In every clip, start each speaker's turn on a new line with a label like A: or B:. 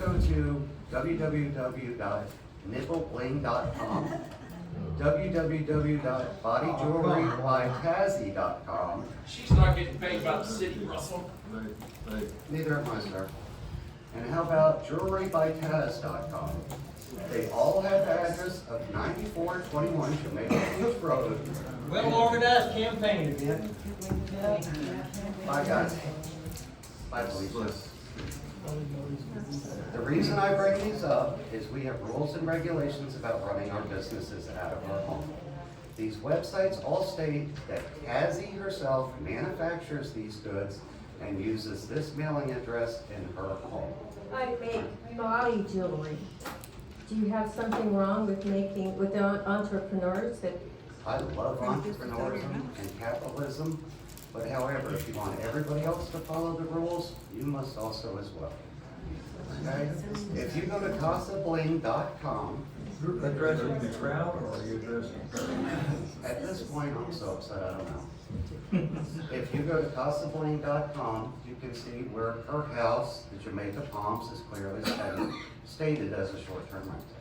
A: go to www.nipplebling.com, www.bodyjewelrybytazzy.com.
B: She's not getting paid by the city, Russell.
C: They, they,
A: Neither am I, sir. And how about jewelrybytaz.com? They all have the address of 9421 Jamaica Beach Road.
D: Well-organized campaign event.
A: Bye, guys. Bye, police. The reason I bring these up is we have rules and regulations about running our businesses out of our home. These websites all state that Kazi herself manufactures these goods and uses this mailing address in her home.
E: I make body jewelry. Do you have something wrong with making, with the entrepreneurs that,
A: I love entrepreneurship and capitalism, but however, if you want everybody else to follow the rules, you must also as well. Okay? If you go to casabling.com,
C: you're addressing the crowd or are you addressing?
A: at this point, I'm so upset, I don't know. If you go to casabling.com, you can see where her house, the Jamaica Palms, is clearly stated, stated as a short-term rental.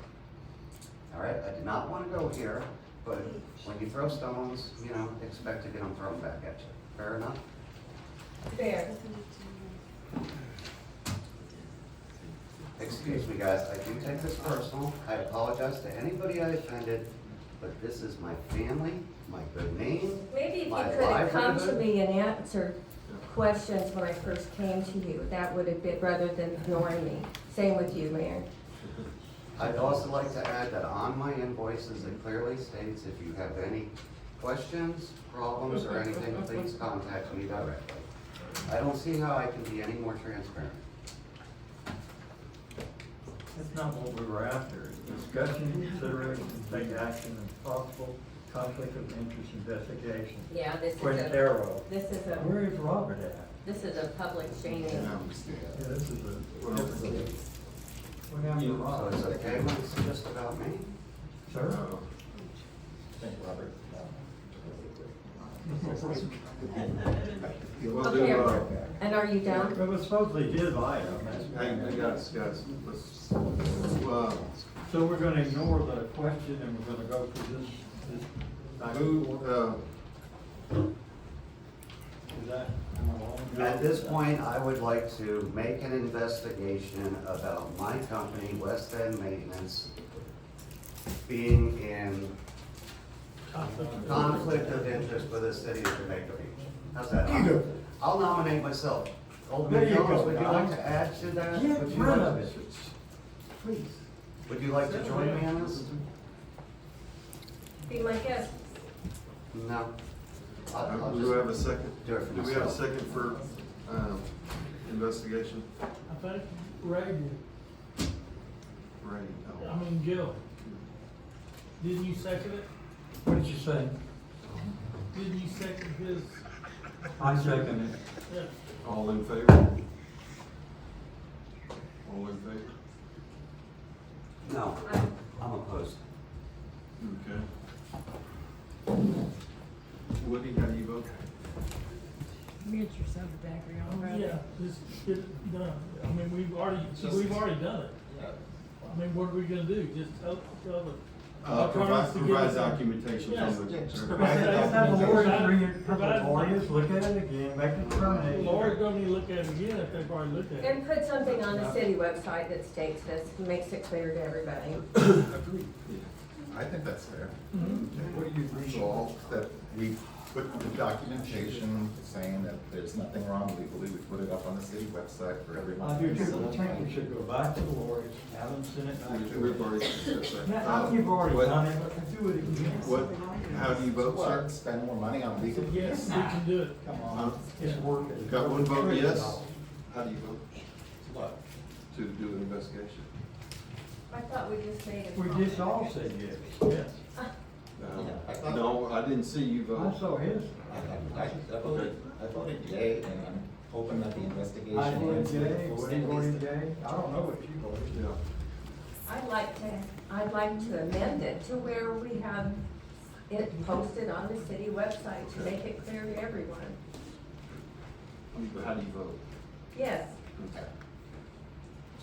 A: All right, I did not want to go here, but when you throw stones, you know, expect to get them thrown back at you. Fair enough?
E: fair,
A: Excuse me, guys, I do take this personal. I apologize to anybody I offended, but this is my family, my good name.
E: maybe if you
A: My
E: could have come to
A: livelihood.
E: me and answered questions when I first came to you, that would have been, rather than ignoring me. Same with you, Mayor.
A: I'd also like to add that on my invoices, it clearly states if you have any questions, problems, or anything, please contact me directly. I don't see how I can be any more transparent.
C: That's not what we were after, discussion, consideration, take action, and possible conflict of interest investigation.
E: Yeah, this is a,
C: Quintero,
E: this is a,
C: where is Robert at?
E: this is a public shaming.
C: Yeah, this is a, different- what happened to
A: So
C: Robert?
A: it's okay when it's just about me?
C: Sir?
F: We'll
E: Okay,
F: do, uh,
E: and are you done?
C: It was supposedly his item, that's.
F: hang, hang, guys, guys, let's, let's, uh,
C: So we're gonna ignore the question and we're gonna go through this, this.
F: move, uh,
C: Is that? am I wrong?
A: At this point, I would like to make an investigation about my company, West End Maintenance, being in conflict of interest with the city of Jamaica Beach. How's that? I'll nominate myself. Alderman
C: There you
A: Jones,
C: go,
A: would you
C: Don.
A: like to add to that?
C: Get
A: Would you
C: rid
A: like-
C: of it. Please.
A: Would you like to join me on this?
E: Be my guest.
A: No. I'll- I'll
F: do we have a
A: just
F: second?
A: Do it for
F: Do we have a
A: myself.
F: second for, um, investigation?
G: I think Ray,
F: Randy,
G: I
F: no.
G: mean Gil, didn't you second it?
C: What did you say?
G: Didn't you second his? uh,
C: I second it.
G: Yeah.
F: All in favor? All in favor?
A: No,
E: I'm-
A: I'm opposed.
F: Okay. Woody, how do you vote?
H: Get yourself a daiquiri on, brother.
G: Yeah, just get it done. I mean, we've already, we've already done it. I mean, what are we gonna do? Just tell, tell the.
F: Uh,
G: Our
F: provide,
G: comments to give
F: provide
G: us-
F: documentation
G: Yeah,
F: from
G: yeah, just
F: the.
G: provide-
C: Have the lawyers bring it, have
G: Provide-
C: the lawyers look at it again, make a determination.
G: Laura's gonna need to look at it again if they've already looked at it.
E: And put something on the city website that states this, makes it clear to everybody.
I: I think that's fair.
G: Mhm.
I: What do you resolve that we put the documentation saying that there's nothing wrong legally, we put it up on the city website for everyone.
C: I do
I: to
C: too,
I: see.
C: I think we should go back to the lawyers, have them send it back
F: We-
C: to
F: We've
C: us.
F: already discussed that. Um,
C: Now, you've already
F: What-
C: done it, but do it again.
F: What, how do you vote,
I: Well,
F: sir?
I: Spend more money on legal.
G: Yes, we can do it.
I: Come
F: Huh?
I: on.
C: It's worth
F: You
C: it.
F: Got one vote yes?
C: $300.
F: How do you vote?
I: What?
F: To do an investigation?
E: I thought we just made a.
C: We just all said yes, yes.
F: Um,
I: Yeah, I thought-
F: No, I didn't see you
C: I
F: vote.
C: saw his.
I: I, I voted, I voted yay, and I'm hoping that the investigation.
C: I voted
I: ends with-
C: yay, Woody voted yay. I don't know what you voted.
F: Yeah.
E: I'd like to, I'd like to amend it to where we have it posted on the city website to make it clear to everyone.
F: But How do you vote?
E: Yes,
F: Okay.